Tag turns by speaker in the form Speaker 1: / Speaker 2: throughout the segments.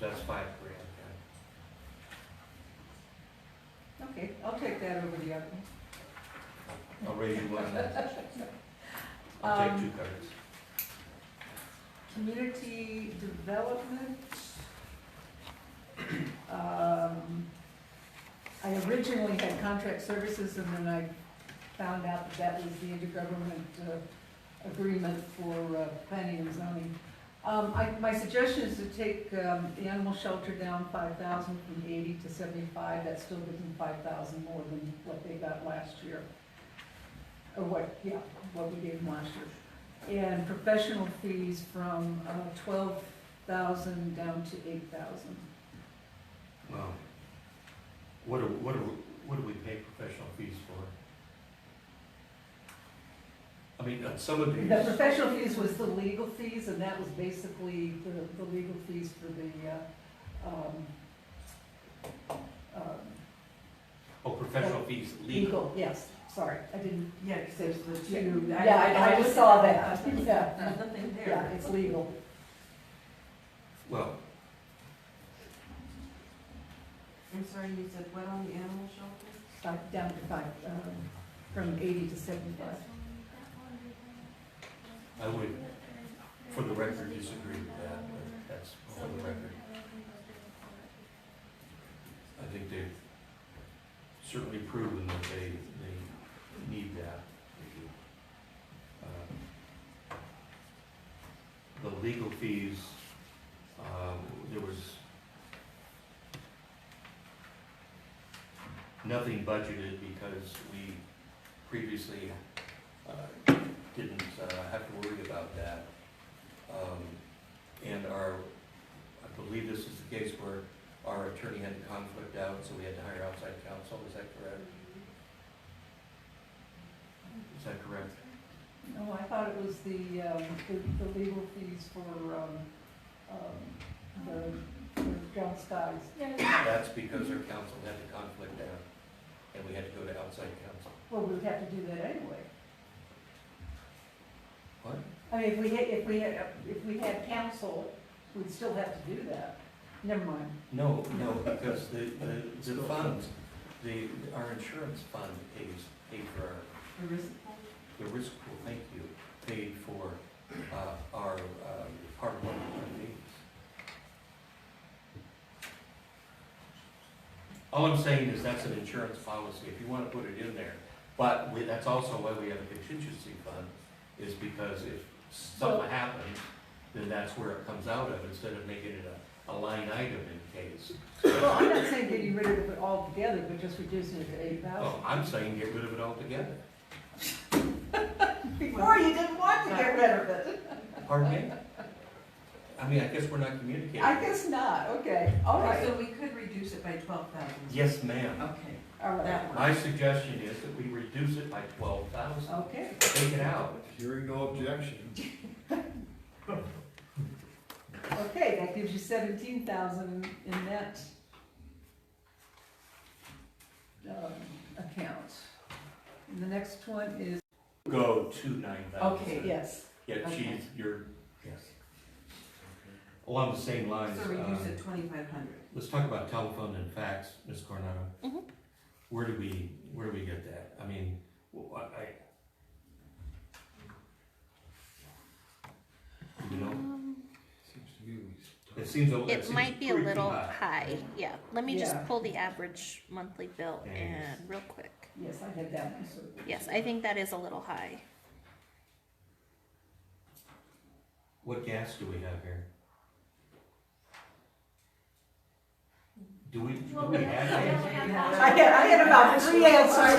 Speaker 1: that's five grand, yeah.
Speaker 2: Okay, I'll take that over the other one.
Speaker 1: I'll raise you one. I'll take two cards.
Speaker 2: Community development. Um, I originally had contract services and then I found out that that was the intergovernment uh, agreement for uh, planning and zoning. Um, I, my suggestion is to take, um, the animal shelter down five thousand from eighty to seventy-five, that still gives them five thousand more than what they got last year. Or what, yeah, what we gave them last year and professional fees from uh, twelve thousand down to eight thousand.
Speaker 1: Well, what do, what do, what do we pay professional fees for? I mean, uh, some of these,
Speaker 2: The professional fees was the legal fees, and that was basically the, the legal fees for the, uh, um, um,
Speaker 1: oh, professional fees, legal.
Speaker 2: legal, yes, sorry, I didn't.
Speaker 3: Yeah, because there's the
Speaker 2: Yeah,
Speaker 3: two.
Speaker 2: I just saw that, yeah,
Speaker 3: There's nothing
Speaker 2: yeah,
Speaker 3: there.
Speaker 2: it's legal.
Speaker 1: Well,
Speaker 3: I'm sorry, you said what on the animal shelter?
Speaker 2: Five, down to five, um, from eighty to seventy-five.
Speaker 1: I would, for the record, disagree with that, but that's for the record. I think they've certainly proven that they, they need that. Um, The legal fees, um, there was nothing budgeted because we previously, uh, didn't, uh, have to worry about that. Um, and our, I believe this is the case where our attorney had the conflict out, so we had to hire outside counsel, is that correct? Is that correct?
Speaker 2: No, I thought it was the, um, the, the legal fees for, um, um, the, for John Skies.
Speaker 1: That's because our counsel had the conflict out, and we had to go to outside counsel.
Speaker 2: Well, we would have to do that anyway.
Speaker 1: What?
Speaker 2: I mean, if we had, if we had, if we had counsel, we'd still have to do that. Never mind.
Speaker 1: No, no, because the, the, the funds, the, our insurance fund pays, paid for our
Speaker 3: The risk pool?
Speaker 1: the risk pool, thank you, paid for uh, our uh, part of our needs. All I'm saying is that's an insurance policy, if you want to put it in there. But we- that's also why we have a contingency fund, is because if something happens, then that's where it comes out of, instead of making it a, a line item in case.
Speaker 2: Well, I'm not saying getting rid of it altogether, but just reducing it to eight thousand.
Speaker 1: Oh, I'm saying get rid of it altogether.
Speaker 2: Before Oh, you didn't want
Speaker 3: to get
Speaker 2: rid of it.
Speaker 1: Pardon me? I mean, I guess we're not communicating.
Speaker 2: I guess not, okay, all
Speaker 3: Okay,
Speaker 2: right,
Speaker 3: so we could reduce it by twelve thousand.
Speaker 1: Yes, ma'am.
Speaker 3: Okay,
Speaker 2: all right,
Speaker 3: that
Speaker 1: My
Speaker 3: one.
Speaker 1: suggestion is that we reduce it by twelve thousand,
Speaker 2: okay.
Speaker 1: take it out.
Speaker 4: Hearing no objection.
Speaker 2: Okay, that gives you seventeen thousand in that um, account. And the next one is,
Speaker 1: Go to nine thousand.
Speaker 3: Okay,
Speaker 2: yes,
Speaker 1: Yeah,
Speaker 3: okay.
Speaker 1: she's, you're, yes. Along the same lines,
Speaker 3: So reduce
Speaker 1: uh,
Speaker 3: it twenty-five hundred.
Speaker 1: let's talk about telephone and fax, Ms. Coronado.
Speaker 3: Mm-hmm.
Speaker 1: Where do we, where do we get that? I mean, wh- I, I- you know,
Speaker 4: Seems to be.
Speaker 1: it seems, a- it
Speaker 5: It
Speaker 1: seems
Speaker 5: might be a little
Speaker 1: creepy
Speaker 5: high, yeah. Let me just
Speaker 2: Yeah.
Speaker 5: pull the average monthly bill
Speaker 1: Yeah, yes.
Speaker 5: in real quick.
Speaker 2: yes, I had that one, so.
Speaker 5: Yes, I think that is a little high.
Speaker 1: What gas do we have here? Do we, do we have gas?
Speaker 2: I had, I had about three answers.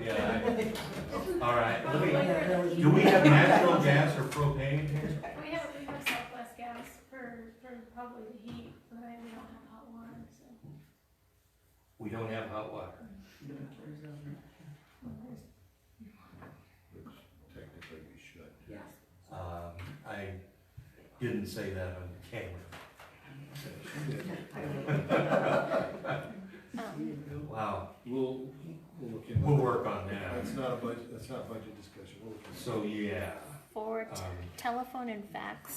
Speaker 1: Yeah. I- All right, let me, do we have natural gas or propane here?
Speaker 6: We have, we have Southwest gas for, for probably the heat, but I- we don't have hot water, so.
Speaker 1: We don't have hot water.
Speaker 4: Which technically we should.
Speaker 3: Yes.
Speaker 1: Um, I didn't say that on camera.
Speaker 5: Um,
Speaker 1: Wow,
Speaker 4: We'll, we'll look into.
Speaker 1: we'll
Speaker 4: that.
Speaker 1: work on that.
Speaker 4: That's not a budget, that's not a budget discussion, we'll look into.
Speaker 1: So, yeah,
Speaker 5: forward
Speaker 1: Um,
Speaker 5: telephone and fax